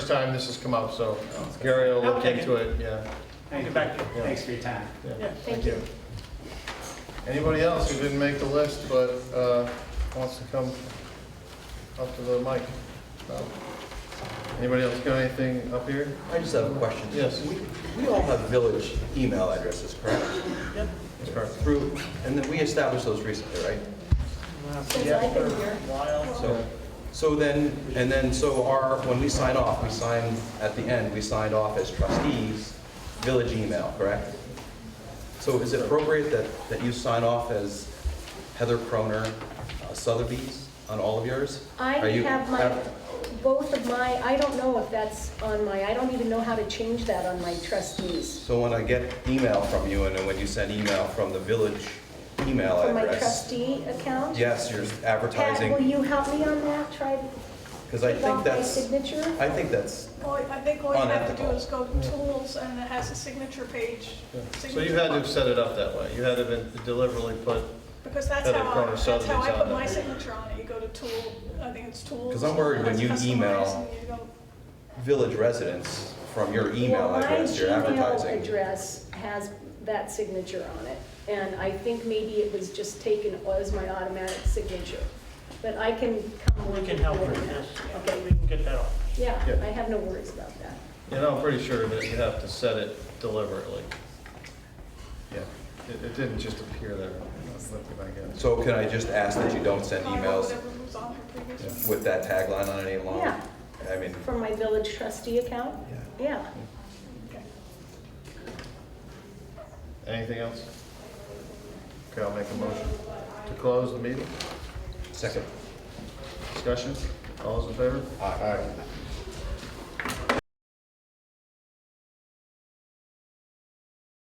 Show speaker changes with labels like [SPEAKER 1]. [SPEAKER 1] time this has come up, so Gary will look
[SPEAKER 2] Okay.
[SPEAKER 1] into it, yeah.
[SPEAKER 2] I'll get back to you.
[SPEAKER 1] Yeah.
[SPEAKER 2] Thanks for your time.
[SPEAKER 1] yeah.
[SPEAKER 3] Yeah, thank you.
[SPEAKER 1] Anybody else who didn't make the list but uh, wants to come up to the mic? No? Anybody else got anything up here?
[SPEAKER 4] I just have a question.
[SPEAKER 1] Yes.
[SPEAKER 4] We- We all have village email addresses, correct?
[SPEAKER 1] That's correct.
[SPEAKER 4] Through, and then we established those recently, right?
[SPEAKER 3] Since I've been here,
[SPEAKER 4] So, so then, and then, so our, when we sign off, we sign, at the end, we signed off as trustees, village email, correct? So is it appropriate that, that you sign off as Heather Croner uh, Sotheby's on all of yours?
[SPEAKER 3] I
[SPEAKER 4] Are you-
[SPEAKER 3] have my, both of my, I don't know if that's on my, I don't even know how to change that on my trustees.
[SPEAKER 4] So when I get email from you, and then when you send email from the village email
[SPEAKER 3] For my
[SPEAKER 4] address,
[SPEAKER 3] trustee account?
[SPEAKER 4] yes, you're
[SPEAKER 3] Pat, will
[SPEAKER 4] advertising,
[SPEAKER 3] you help me on that? Try to
[SPEAKER 4] because I
[SPEAKER 3] take
[SPEAKER 4] think
[SPEAKER 3] off my
[SPEAKER 4] that's,
[SPEAKER 3] signature?
[SPEAKER 4] I think that's,
[SPEAKER 5] All I I think all you have to do
[SPEAKER 4] Unethical.
[SPEAKER 5] is go to tools and it has a signature page.
[SPEAKER 1] So you had to have set it up that way. You had to have been deliberately put,
[SPEAKER 5] Because that's
[SPEAKER 1] Heather
[SPEAKER 5] how,
[SPEAKER 1] Cronin
[SPEAKER 5] I- that's how
[SPEAKER 1] Sotheby's
[SPEAKER 5] I
[SPEAKER 1] on
[SPEAKER 5] put
[SPEAKER 1] it.
[SPEAKER 5] my signature on it. You go to tool, I think it's tools.
[SPEAKER 4] 'Cause I'm worried when you
[SPEAKER 5] That's
[SPEAKER 4] email-
[SPEAKER 5] customized and you go-
[SPEAKER 4] village residents from your email
[SPEAKER 3] Well,
[SPEAKER 4] address, your
[SPEAKER 3] My Gmail
[SPEAKER 4] advertising.
[SPEAKER 3] address has that signature on it, and I think maybe it was just taken as my automatic signature. But I can come
[SPEAKER 6] We
[SPEAKER 3] work
[SPEAKER 6] can
[SPEAKER 3] with
[SPEAKER 6] help
[SPEAKER 3] that.
[SPEAKER 6] with this,
[SPEAKER 3] Okay,
[SPEAKER 6] we can get that off.
[SPEAKER 3] yeah,
[SPEAKER 1] Yeah.
[SPEAKER 3] I have no worries about that.
[SPEAKER 1] you know, I'm pretty sure that you have to set it deliberately. Yeah, it it didn't just appear there. I'm looking back at it.
[SPEAKER 4] So can I just ask that you don't send
[SPEAKER 5] I go
[SPEAKER 4] emails
[SPEAKER 5] whatever was on her previous one.
[SPEAKER 4] with that tagline on it any longer?
[SPEAKER 3] Yeah.
[SPEAKER 4] I mean,
[SPEAKER 3] From my village trustee account? Yeah.
[SPEAKER 5] Okay.
[SPEAKER 1] Anything else? Okay, I'll make a motion to close the meeting.
[SPEAKER 4] second.
[SPEAKER 1] Discussion? All those in favor?
[SPEAKER 4] Aye.